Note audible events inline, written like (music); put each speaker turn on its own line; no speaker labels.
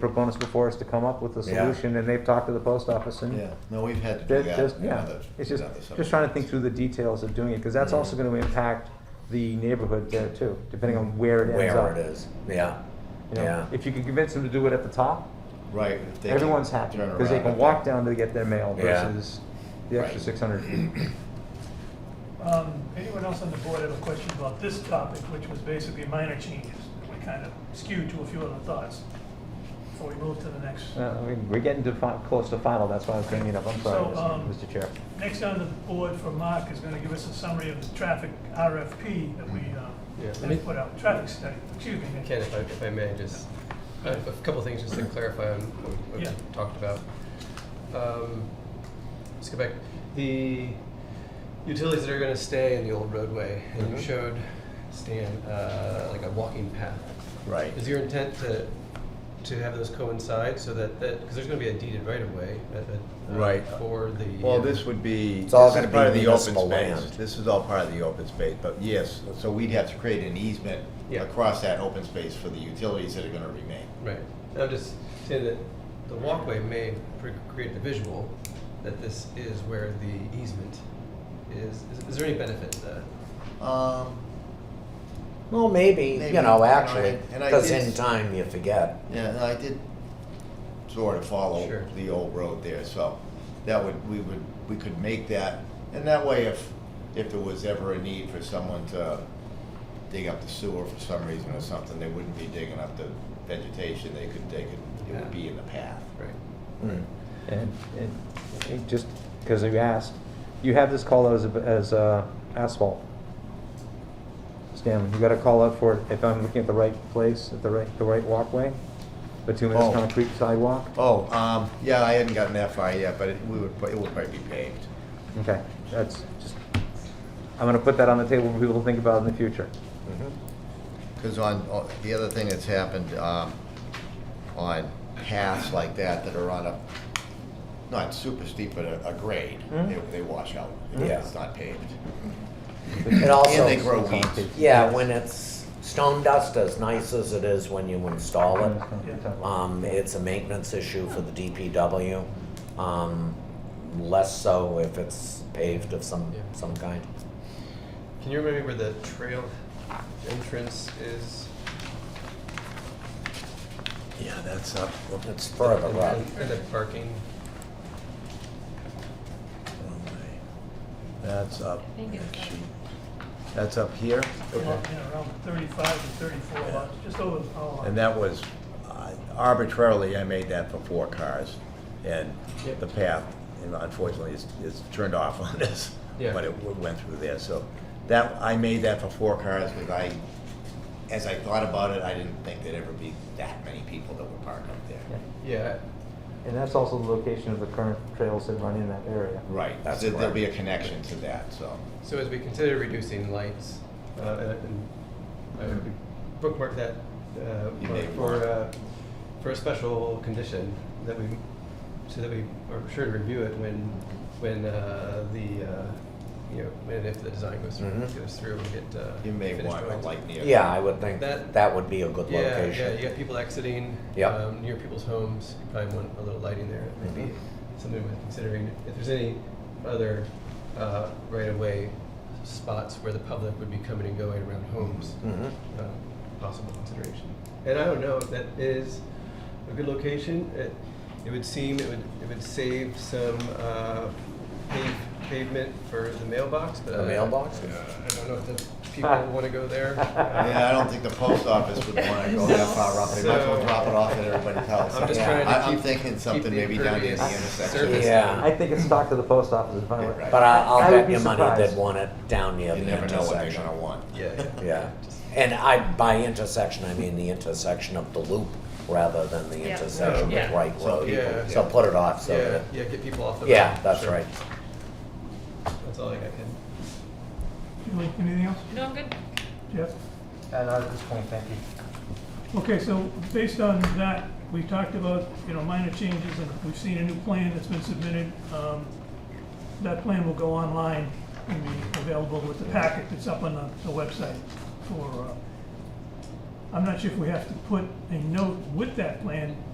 proponents before us to come up with a
Yeah.
solution, and they've talked to the post office and.
Yeah, no, we've had to do
They're
that.
just,
in
yeah,
other-
it's
in
just,
other
just trying to think
subdivisions.
through the details of doing it, because that's
Mhm.
also gonna impact the neighborhood there too, depending on where it ends up.
Where it is,
Yeah,
You know,
yeah.
If you can convince them to do it at the top,
Right. if they can
everyone's happy,
turn
because they
around
can
at
walk
that.
down to get their mail
Yeah.
versus the extra
Right.
six hundred (clears throat) feet.
Um, Anyone else on the board have a question about this topic, which was basically minor changes? We kind of skewed to a few other thoughts before we move to the next.
Uh, I mean, we're getting to fi- close to final, that's why I was bringing it up, I'm sorry,
So, um,
Mr. Chair.
Next on the board for Mark is going to give us a summary of the traffic RFP that we uh,
Yeah.
have put out, traffic study, excuse me. Nick.
Ken, if I, if I may, just, uh, a couple things just to clarify on what we
Yeah.
talked about. Um, Let's go back, the utilities that are gonna stay in the old roadway, and
Mm-hmm.
you showed, Stan, uh, like a walking path.
Right.
Is your intent to, to have those coincide so that, that, because there's gonna be a deeded right of way, at the- uh,
Right.
For the.
Well, this would be, this
It's all
is
gonna be
part of the open
municipal land.
space. This is all part of the open space, but yes, so we'd have to create an easement
Yeah.
across that open space for the utilities that are gonna remain.
Right. And I'm just saying that the walkway may pre- create the visual that this is where the easement is. Is, is there any benefit to that?
Um,
Well, maybe,
Maybe,
you know,
you know,
actually,
and- and I
because
did-
in time you forget.
yeah, and I did sort of follow
Sure.
the old road there, so that would, we would, we could make that. And that way, if, if there was ever a need for someone to dig up the sewer for some reason or something, they wouldn't be digging up the vegetation, they could, they could, it would be in the path.
Right.
Mm.
And, and it just, because you asked, you have this call out as, a- as uh, asphalt. Stan, you got a call out for, it if I'm looking at the right place, at the right, the right walkway, the two
Oh.
minutes concrete sidewalk?
Oh, um, yeah, I hadn't gotten that far yet, but it, we would, it would probably be paved.
Okay, that's just, I'm gonna put that on the table for people to think about in the future.
Because on, on- the other thing that's happened, um, on paths like that that are on a, not super steep, but a, a grade, they, they wash out.
Yeah.
It's not paved.
It also.
And they grow weeds.
Yeah, when it's stone dust, as nice as it is when you install it,
Mm-hmm.
um, it's a maintenance issue for the DPW. Um, less so if it's paved of some,
Yeah.
some kind.
Can you remember where the trail entrance is?
Yeah, that's up.
It's further
And-
up.
And the parking?
That's up.
I think it's-
That's up here,
Yeah, Around 35 to 34 lots, just over the power line.
that was uh, arbitrarily, I made that for four cars. And
Yep. the
path, unfortunately, is, is turned off (laughs) on this.
Yeah.
But it w- went through there, so that, I made that for four cars, because I, as I thought about it, I didn't think there'd ever be that many people that would park up there.
Yeah.
And that's also the location of the current trails that run in that area.
Right,
That's
so there'll be a
correct.
connection to that, so.
So as we consider reducing lights, uh, and I would bookmark that uh,
You
for,
may
for,
want-
uh, for a special condition that we, so that we are sure to review it when, when uh, the, uh, you know, when if the design goes through,
Mhm.
goes through and get. uh,
Mm-hmm. You may
finished
want a
drawings.
light near.
Yeah, I would think
That-
that would be a good
Yeah, yeah,
location.
you got people exiting.
Yep.
um, Near people's homes, you probably want a little lighting there, maybe
Mm-hmm.
something worth considering. If there's any other uh, right-of-way spots where the public would be coming and going around homes,
Mhm.
uh, possible consideration. And I don't know if that is a good location. It, it would seem, it would, it would save some uh, pave- pavement for the mailbox, but.
The
I-
mailbox?
uh, I don't know if the people want to
(laughs)
go there. Uh,
Yeah, I don't think the post office would wanna go that far up, they might as well
So-
drop it off at everybody's house.
I'm just
Yeah.
trying to
I- I'm
keep-
thinking
keep
something
the
maybe down near the
impervious
intersection.
surface.
Yeah.
I think it's stocked to the post office in front of
Yeah,
it.
right.
But I,
I
I'll
would
bet
be
your money they'd
surprised.
want it down near
You
the
never know what they're
intersection.
gonna want.
Yeah,
Yeah,
yeah.
and I, by intersection, I mean the intersection of the loop rather than the
Yeah.
intersection
Yeah.
with Wright
Some
Road.
people-
So put it off, so
yeah,
that,
yeah, get people off the
yeah,
road.
that's
Sure.
right.
That's all I got. Ken.
You like Anything else,
No, I'm good.
Jeff?
And at this point, thank you.
Okay, so based on that, we talked about, you know, minor changes, and we've seen a new plan that's been submitted. Um, That plan will go online and be available with the packet that's up on the the website for, uh, I'm not sure if we have to put a note with that plan